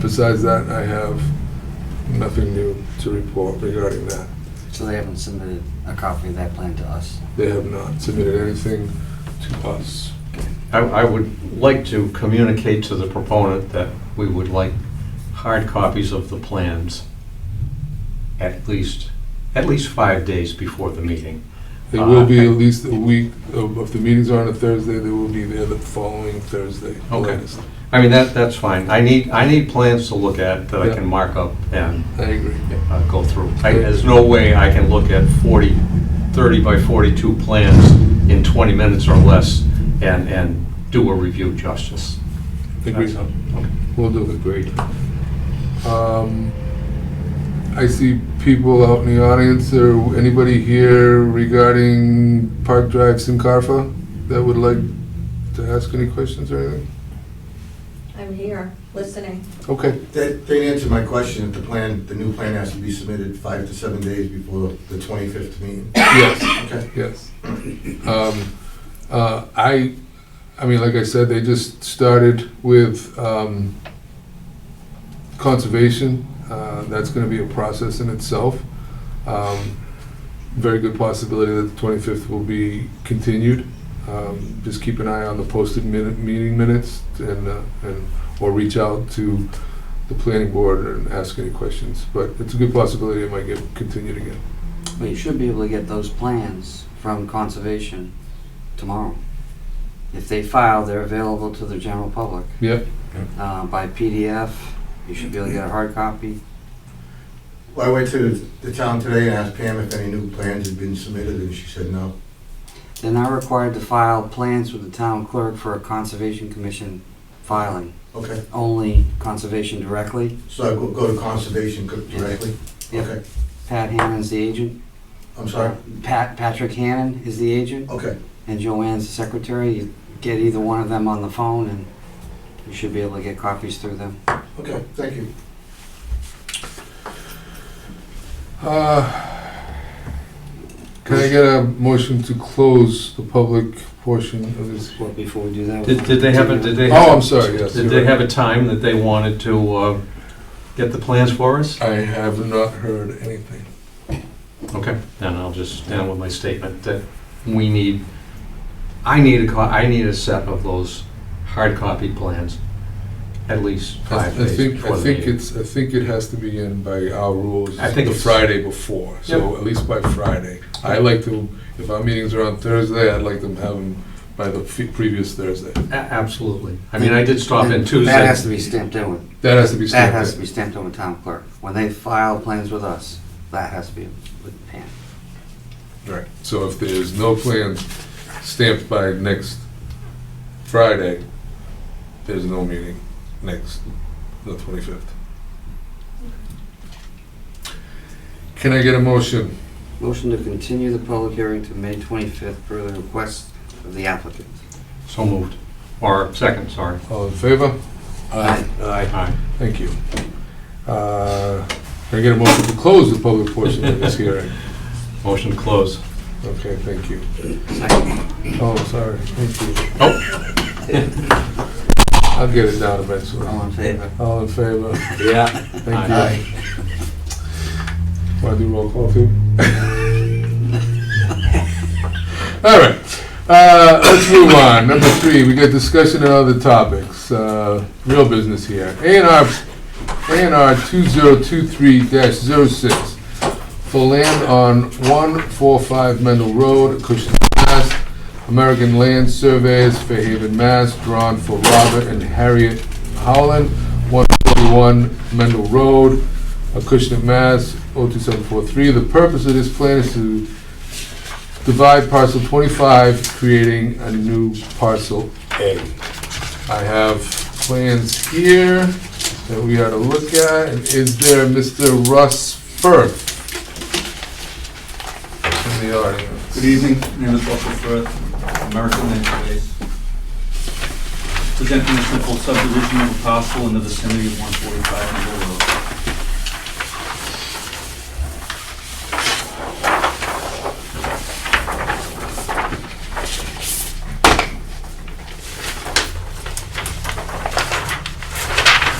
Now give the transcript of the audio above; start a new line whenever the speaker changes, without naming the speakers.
Besides that, I have nothing new to report regarding that.
So they haven't submitted a copy of that plan to us?
They have not submitted anything to us.
I, I would like to communicate to the proponent that we would like hard copies of the plans at least, at least five days before the meeting.
They will be
Uh,
at least a week, of- if the meetings are on a Thursday, they will be there the following Thursday.
Okay.
latest.
I mean, that, that's fine. I need, I need plans to look at that I
Yeah.
can mark up and
I agree.
uh, go through. I- There's no way I can look at 40, 30 by 42 plans in 20 minutes or less and, and do a review justice.
Agreed.
That's- okay.
We'll do it. Great. Um, I see people out in the audience, or anybody here regarding Park Drive Sincarfa that would like to ask any questions or anything?
I'm here, listening.
Okay,
They, they answered my question, that the plan, the new plan has to be submitted five to seven days before the twenty-fifth meeting.
yes,
Okay.
yes. Um, uh, I, I mean, like I said, they just started with um, conservation. Uh, That's going to be a process in itself. Um, Very good possibility that the 25th will be continued. Um, Just keep an eye on the posted minute, meeting minutes and, uh, and, or reach out to the planning board and ask any questions. But it's a good possibility it might get continued again.
But you should be able to get those plans from Conservation tomorrow. If they file, they're available to the general public
Yep.
uh, by PDF. You should be able to get a hard copy.
Well, I went to the town today and asked Pam if any new plans had been submitted, and she said no.
They're not required to file plans with the town clerk for a Conservation Commission filing,
Okay,
only Conservation directly.
so I go, go to conservation co- directly?
Yep.
Okay,
Pat Hannon's the agent.
I'm sorry,
Pat, Patrick Hannon is the agent,
okay,
and Joanne's the secretary. You get either one of them on the phone, and you should be able to get copies through them.
okay, thank you.
Uh, Can I get a motion to close the public portion of this?
Well, before we do that.
Did, did they have, a- did they? have-
Oh, I'm sorry, yes.
Did
you're
they
right.
have a time that they wanted to uh, get the plans for us?
I have not heard anything.
Okay, then I'll just stand with my statement that we need, I need a, co- I need a set of those hard copy plans, at least
I I
five days
think,
before
I
the
think
meeting.
it's, I think it has to be in by our rules,
I think
the
it's-
Friday before, so at least by Friday. I like to, if our meetings are on Thursday, I'd like them to have them by the fe- previous Thursday.
A- Absolutely. I mean, I did stop in
That has to
Tuesday.
be stamped in with,
That has to be
that
stamped
has
in.
to be stamped in with town clerk. When they file plans with us, that has to be with Pam.
Right, so if there's no plans stamped by next Friday, there's no meeting next, the 25th. Can I get a motion?
Motion to continue the public hearing to May 25th per the request of the applicant.
So moved. Or second, sorry.
All in favor?
Aye.
Thank you. Uh, Can I get a motion to close the public portion of this hearing?
Motion to close.
Okay, thank you.
Second.
Oh, sorry, thank you.
Oh,
I'll get it down eventually.
All in favor?
All in favor?
yeah. Aye.
Thank you. Want to do roll call too? All right, uh, let's move on. Number three, we got discussion on other topics. Uh, real business here. A and R, A and R two zero two three 6 for land on one four five Mendel Road, Cushing, Mass. American Land Surveyors, Fairhaven, Mass, drawn for Robert and Harriet Howland, 141 Mendel Road, Acushnet, Mass, 02743. The purpose of this plan is to divide parcel 25, creating a new parcel A. I have plans here that we are to look at. And Is there Mr. Russ Firth in the audience?
Good evening, my name is Russell Firth, American Land Surveys. Presenting a simple subdivision of a parcel in the vicinity of 145 Middle